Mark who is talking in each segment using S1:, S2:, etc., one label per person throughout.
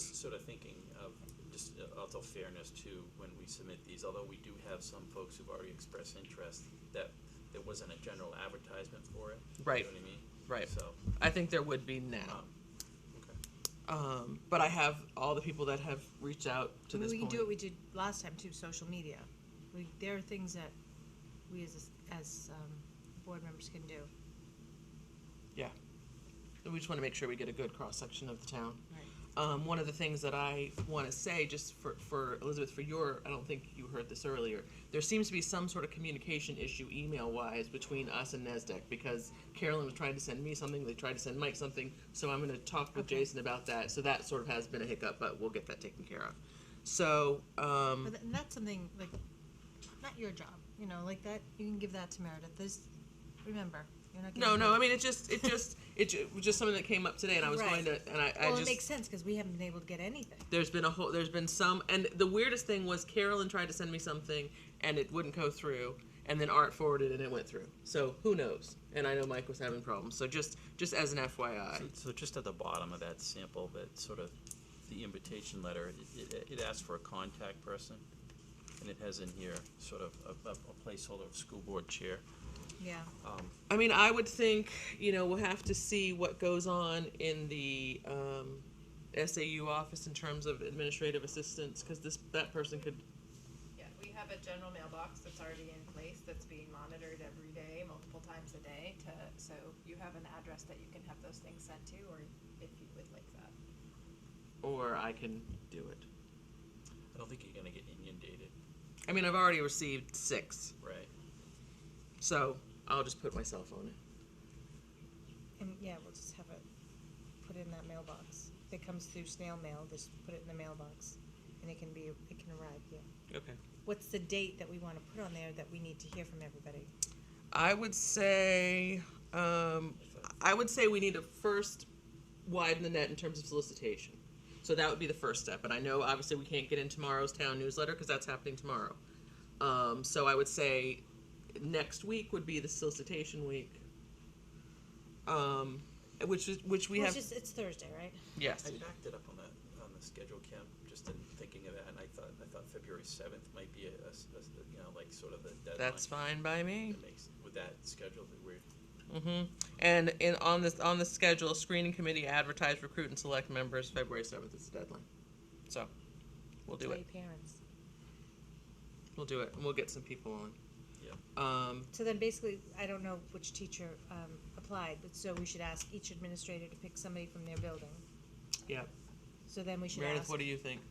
S1: sort of thinking of just uh, out of fairness too, when we submit these, although we do have some folks who've already expressed interest, that there wasn't a general advertisement for it.
S2: Right.
S1: You know what I mean?
S2: Right.
S1: So,
S2: I think there would be now.
S1: um, okay.
S2: Um, but I have all the people that have reached out to
S3: I mean,
S2: this
S3: we
S2: point.
S3: can do what we did last time too, social media. We, there are things that we as, as, um, board members can do.
S2: Yeah. We just want to make sure we get a good cross section of the town.
S3: Right.
S2: Um, one of the things that I want to say, just for, for Elizabeth, for your, I don't think you heard this earlier, there seems to be some sort of communication issue email wise between us and NASDAQ because Carolyn was trying to send me something, they tried to send Mike something, so I'm going to talk with Jason about that. So that sort of has been a hiccup, but we'll get that taken care of. So, um,
S3: But tha- and that's something like, not your job, you know, like that, you can give that to Meredith. This, remember, you're not.
S2: No,
S3: giving
S2: no.
S3: it-
S2: I mean, it just, it just, it ju- was just something that came up today, and I was going
S3: Right.
S2: to, and I, I
S3: Well, it
S2: just.
S3: makes sense because we haven't been able to get anything.
S2: there's been a whole, there's been some, and the weirdest thing was Carolyn tried to send me something, and it wouldn't go through, and then Art forwarded, and it went through. So who knows? And I know Mike was having problems. So just, just as an FYI.
S1: So- So just at the bottom of that sample, that sort of, the invitation letter, it, it- it asks for a contact person, and it has in here sort of a, a a placeholder of school board chair.
S3: Yeah.
S1: Um,
S2: I mean, I would think, you know, we'll have to see what goes on in the um, SAU office in terms of administrative assistance, because this that person could
S4: Yeah, we have a general mailbox that's already in place that's being monitored every day, multiple times a day to, so you have an address that you can have those things sent to or if you would like that.
S2: or I can do it.
S1: I don't think you're gonna get inundated,
S2: I mean, I've already received six.
S1: right?
S2: So I'll just put my cell phone
S3: And yeah, we'll just have it put in that mailbox. If it comes through snail mail, just put it in the mailbox and it can be, it can arrive, yeah.
S2: in. Okay.
S3: What's the date that we want to put on there that we need to hear from everybody?
S2: I would say, um, I would say we need to first widen the net in terms of solicitation. So that would be the first step. And I know obviously we can't get in tomorrow's town newsletter because that's happening tomorrow. Um, so I would say next week would be the solicitation week. Um, which is, which we
S3: Well,
S2: have,
S3: It's just, it's Thursday, right?
S2: yes.
S1: I backed it up on the, on the schedule, Kim, just in thinking of that, and I thought, I thought February seventh might be a, a s- a s- you know, like sort of the deadline.
S2: That's fine by me.
S1: That makes, with that schedule that we're,
S2: hmm And in on this on the schedule, screening committee advertise, recruit, and select members. February seventh is the deadline, so we'll do
S3: Tell
S2: it.
S3: your parents.
S2: We'll do it, and we'll get some people on.
S1: Yeah.
S2: Um,
S3: So then basically, I don't know which teacher um, applied, but so we should ask each administrator to pick somebody from their building.
S2: yeah.
S3: So then we should
S2: Meredith,
S3: ask.
S2: what do you think?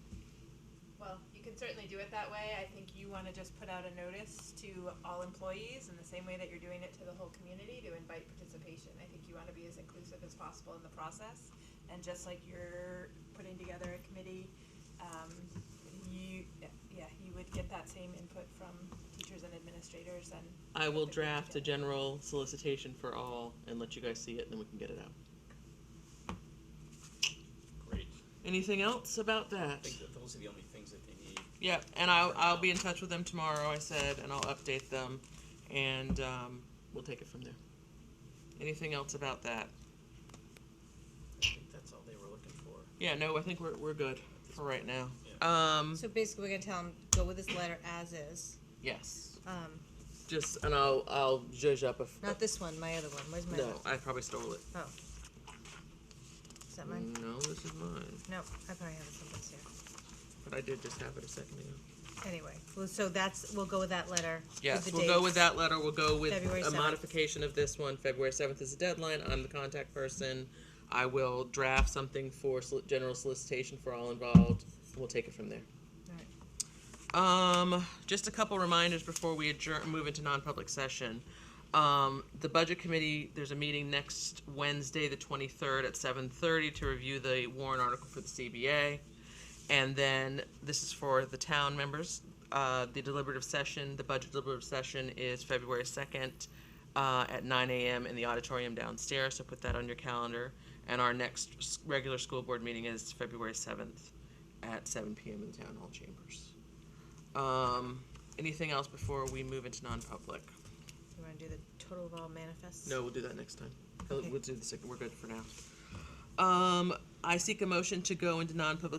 S4: Well, you can certainly do it that way. I think you want to just put out a notice to all employees in the same way that you're doing it to the whole community to invite participation. I think you want to be as inclusive as possible in the process. And just like you're putting together a committee, um, you, yeah, you would get that same input from teachers and administrators and
S2: I will draft a general solicitation for all and let you guys see it, and then we can get it out.
S1: great,
S2: Anything else about
S1: I
S2: that?
S1: think that those are the only things that they need.
S2: Yeah, and I'll I'll be in touch with them tomorrow. I said, and I'll update them, and um, we'll take it from there. Anything else about that?
S1: I think that's all they were looking for.
S2: Yeah, no, I think we're, we're good for right now. Um,
S3: So basically, we're gonna tell them, go with this letter as is.
S2: yes.
S3: Um,
S2: Just, and I'll, I'll judge up if.
S3: not this one, my other one. Where's my?
S2: No,
S3: other-
S2: I probably stole it.
S3: Oh. Is that mine?
S2: No, this is mine,
S3: No, I probably have it someplace here.
S2: but I did just have it a second ago.
S3: Anyway, well, so that's, we'll go with that letter. with
S2: Yes,
S3: the
S2: we'll go
S3: dates.
S2: with that letter, we'll go with
S3: February
S2: a
S3: 7th.
S2: modification of this one, February seventh is the deadline, I'm the contact person. I will draft something for soli- general solicitation for all involved, we'll take it from there.
S3: Alright.
S2: Um, just a couple reminders before we adjourn, move into non-public session. Um, the budget committee, there's a meeting next Wednesday, the twenty-third at seven thirty to review the warrant article for the CBA. And then, this is for the town members, uh, the deliberative session, the budget deliberative session is February second, uh, at nine AM in the auditorium downstairs, so put that on your calendar. And our next s- regular school board meeting is February seventh at seven PM in the town hall chambers. Um, anything else before we move into non-public?
S3: You wanna do the total of all manifests?
S2: No, we'll do that next time. We'll-
S3: Okay.
S2: We'll do the second, we're good for now. Um, I seek a motion to go into non-public